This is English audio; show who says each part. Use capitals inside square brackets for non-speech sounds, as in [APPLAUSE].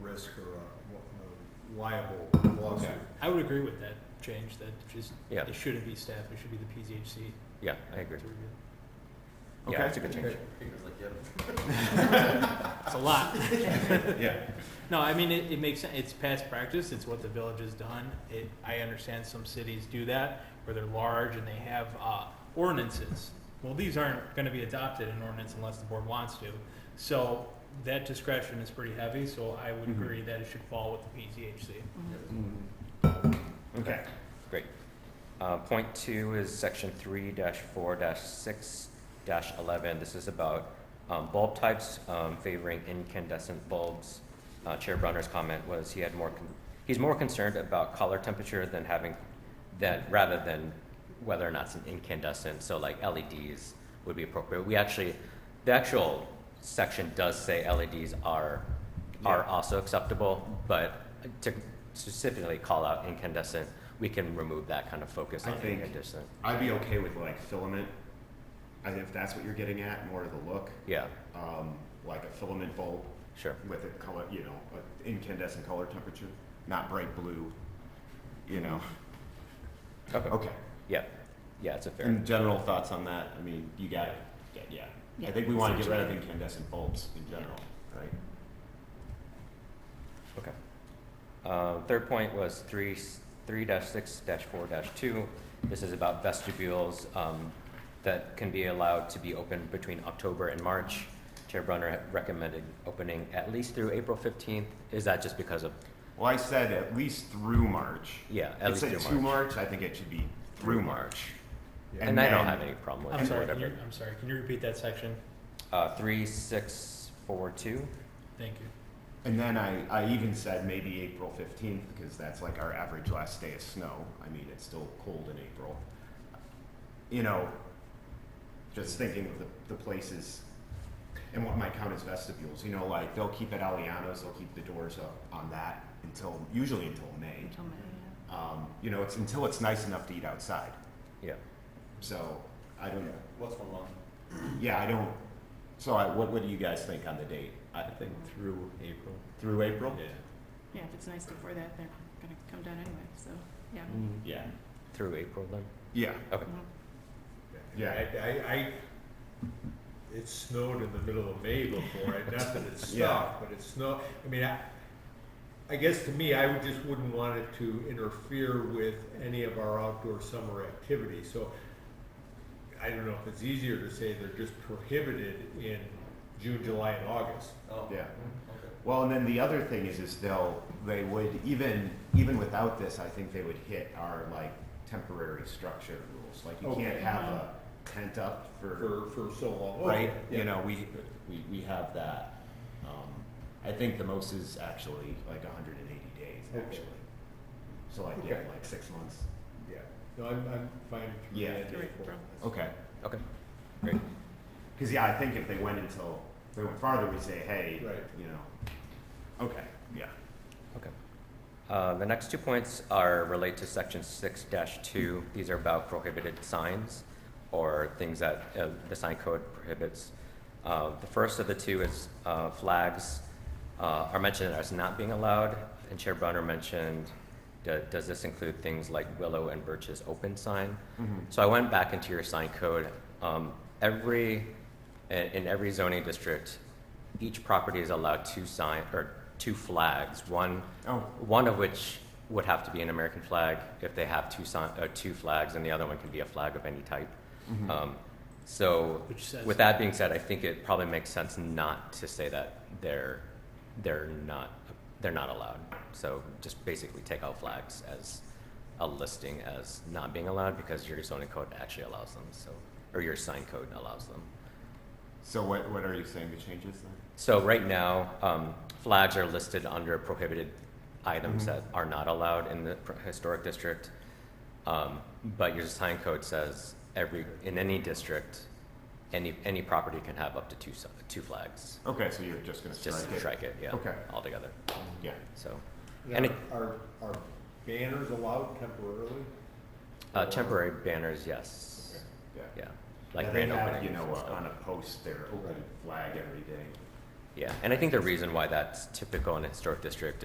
Speaker 1: risk or a uh, liable lawsuit.
Speaker 2: Okay.
Speaker 3: I would agree with that change, that just,
Speaker 2: Yeah.
Speaker 3: it shouldn't be staff, it should be the PZHC.
Speaker 2: Yeah, I agree.
Speaker 3: to review.
Speaker 2: Yeah,
Speaker 1: Okay.
Speaker 2: that's a good change.
Speaker 3: It's a lot.
Speaker 1: [LAUGHS]
Speaker 2: Yeah.
Speaker 3: No, I mean, it, it makes, sen- it's past practice, it's what the village has done. It, I understand some cities do that, where they're large and they have, uh, ordinances. Well, these aren't gonna be adopted in ordinance unless the board wants to. So that discretion is pretty heavy, so I would
Speaker 2: Mhm.
Speaker 3: agree that it should fall with the PZHC.
Speaker 1: Mm-hmm.
Speaker 2: Okay, great. Uh, Point two is section three dash four dash six dash eleven. This is about um, bulb types um, favoring incandescent bulbs. Uh, Chair Brunner's comment was he had more, con- he's more concerned about color temperature than having, that, rather than whether or not it's an incandescent, so like LEDs would be appropriate. We actually, the actual section does say LEDs are, are
Speaker 1: Yeah.
Speaker 2: also acceptable, but to specifically call out incandescent, we can remove that kind of focus
Speaker 4: I
Speaker 2: on
Speaker 4: think-
Speaker 2: incandescent.
Speaker 4: I'd be okay with like filament, I if that's what you're getting at, more of the look,
Speaker 2: Yeah,
Speaker 4: um, like a filament bulb
Speaker 2: sure.
Speaker 4: with a color, you know, a incandescent color temperature, not bright blue, you know. Okay.
Speaker 2: Yeah, yeah, it's a fair.
Speaker 4: And general thoughts on that? I mean, you got it. Yeah, yeah. I
Speaker 5: Yeah.
Speaker 4: think we want to get rid of incandescent bulbs in general, right?
Speaker 2: Okay. Uh, Third point was three, three dash six dash four dash two. This is about vestibules um, that can be allowed to be open between October and March. Chair Brunner recommended opening at least through April fifteenth. Is that just because of,
Speaker 4: Well, I said at least through March.
Speaker 2: yeah, at
Speaker 4: It
Speaker 2: least
Speaker 4: said
Speaker 2: through
Speaker 4: to
Speaker 2: March?
Speaker 4: March, I think it should be through March.
Speaker 1: Yeah.
Speaker 2: And I don't
Speaker 4: then-
Speaker 2: have any problem with
Speaker 3: I'm
Speaker 2: it, so
Speaker 3: sorry, can you,
Speaker 2: whatever.
Speaker 3: I'm sorry, can you repeat that section?
Speaker 2: Uh, three, six, four, two?
Speaker 3: Thank you.
Speaker 4: And then I, I even said maybe April 15th because that's like our average last day of snow. I mean, it's still cold in April. You know, just thinking of the, the places and what might count as vestibules, you know, like they'll keep at Aliano's, they'll keep the doors up on that until, usually until May.
Speaker 5: Until May, yeah.
Speaker 4: Um, you know, it's until it's nice enough to eat outside.
Speaker 2: Yeah.
Speaker 4: So I
Speaker 1: Yeah.
Speaker 4: don't,
Speaker 1: What's one month?
Speaker 4: [CLEARS THROAT] yeah, I don't, so I, what, what do you guys think on the date? I think
Speaker 1: Through April.
Speaker 4: through April?
Speaker 5: Yeah, if it's nice before that, they're gonna come down anyway, so, yeah.
Speaker 2: Mm.
Speaker 3: Mm.
Speaker 4: Yeah.
Speaker 2: Through April then?
Speaker 4: Yeah.
Speaker 2: Okay,
Speaker 5: Mhm.
Speaker 4: Yeah.
Speaker 1: I, I, I, it snowed in the middle of May before, and not that it
Speaker 4: Yeah.
Speaker 1: stopped, but it snowed, I mean, I, I guess to me, I would just wouldn't want it to interfere with any of our outdoor summer activities, so I don't know if it's easier to say they're just prohibited in June, July, and August. Oh,
Speaker 4: Yeah. Well, and then the other thing is, is they'll, they would, even, even without this, I think they would hit our like temporary structure rules. Like you can't
Speaker 1: Okay.
Speaker 4: have a tent up for,
Speaker 1: For, for so long.
Speaker 4: right?
Speaker 1: Oh, Yeah.
Speaker 4: You know, we, we, we have that. Um, I think the most is actually like hundred and eighty days,
Speaker 1: Okay.
Speaker 4: actually. So like, yeah,
Speaker 1: Okay.
Speaker 4: like six months.
Speaker 1: Yeah, no, I'm, I'm fine through the
Speaker 4: Yeah.
Speaker 1: end of
Speaker 5: Through
Speaker 1: April.
Speaker 5: April.
Speaker 4: Okay.
Speaker 2: okay, great.
Speaker 4: Cause yeah, I think if they went until, if they went farther, we'd say, hey,
Speaker 1: Right.
Speaker 4: you know. Okay, yeah.
Speaker 2: Okay. Uh, The next two points are relate to section six two. These are about prohibited signs or things that uh, the sign code prohibits. Uh, The first of the two is uh, flags uh, are mentioned as not being allowed. And Chair Brunner mentioned, do- does this include things like willow and birch's open sign?
Speaker 1: Mm-hmm.
Speaker 2: So I went back into your sign code. Um, Every, in in every zoning district, each property is allowed two sign, or two flags. One
Speaker 4: Oh,
Speaker 2: one of which would have to be an American flag if they have two sign, uh, two flags, and the other one can be a flag of any type.
Speaker 4: Mm-hmm.
Speaker 2: Um, so,
Speaker 3: Which says-
Speaker 2: with that being said, I think it probably makes sense not to say that they're they're not they're not allowed. So just basically take out flags as a listing as not being allowed because your zoning code actually allows them. So, or your sign code allows them.
Speaker 4: so what, what are you saying the changes then?
Speaker 2: So right now, um, flags are listed under prohibited items
Speaker 4: Mhm.
Speaker 2: that are not allowed in the pr- historic district. Um, but your sign code says every, in any district, any, any property can have up to two, si- two flags.
Speaker 4: Okay, so you're just gonna strike
Speaker 2: Just
Speaker 4: it?
Speaker 2: strike it, yeah,
Speaker 4: Okay.
Speaker 2: altogether,
Speaker 4: Yeah.
Speaker 2: so.
Speaker 1: Now,
Speaker 2: And it-
Speaker 1: Are, are banners allowed temporarily?
Speaker 2: Uh,
Speaker 1: Or-
Speaker 2: temporary banners, yes,
Speaker 4: Yeah.
Speaker 2: yeah,
Speaker 4: Yeah,
Speaker 2: like
Speaker 4: they
Speaker 2: grand
Speaker 4: have,
Speaker 2: openings.
Speaker 4: You know,
Speaker 2: and
Speaker 4: uh,
Speaker 2: stuff.
Speaker 4: on a post, their open
Speaker 1: Right.
Speaker 4: flag every day.
Speaker 2: Yeah, and I think the reason why that's typical in a historic district